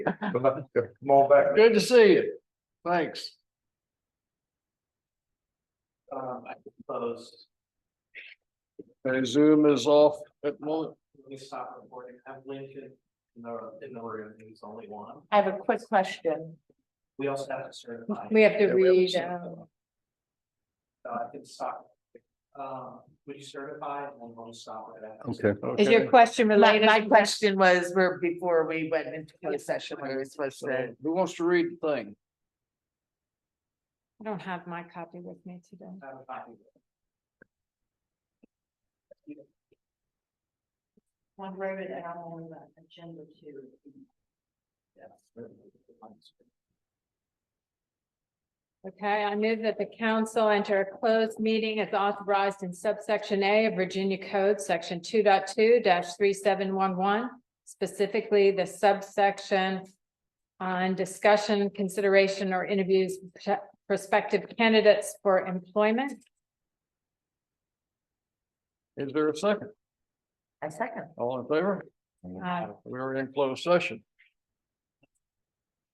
Come on back. Good to see you. Thanks. Um, I suppose, And Zoom is off at the moment. let me stop recording, have Lincoln in the, in the room, he's the only one. I have a quick question. We also have to certify. We have to Yeah, we have read, some- um, Uh, I can stop. Um, would you certify and then we'll stop it? after. Okay. is your question My, related? my to that? question was, where before we went into closed session, we were supposed So to, who wants to read the thing? I don't have my copy with me today. Have a copy. One wrote it out on the agenda too. Okay, I move that the council enter a closed meeting as authorized in subsection A of Virginia Code, section 22 three seven one one. Specifically, the subsection on discussion, consideration, or interviews with prospective candidates for employment. Is there a second? I second. All in favor? Aye. Uh, We're in closed session.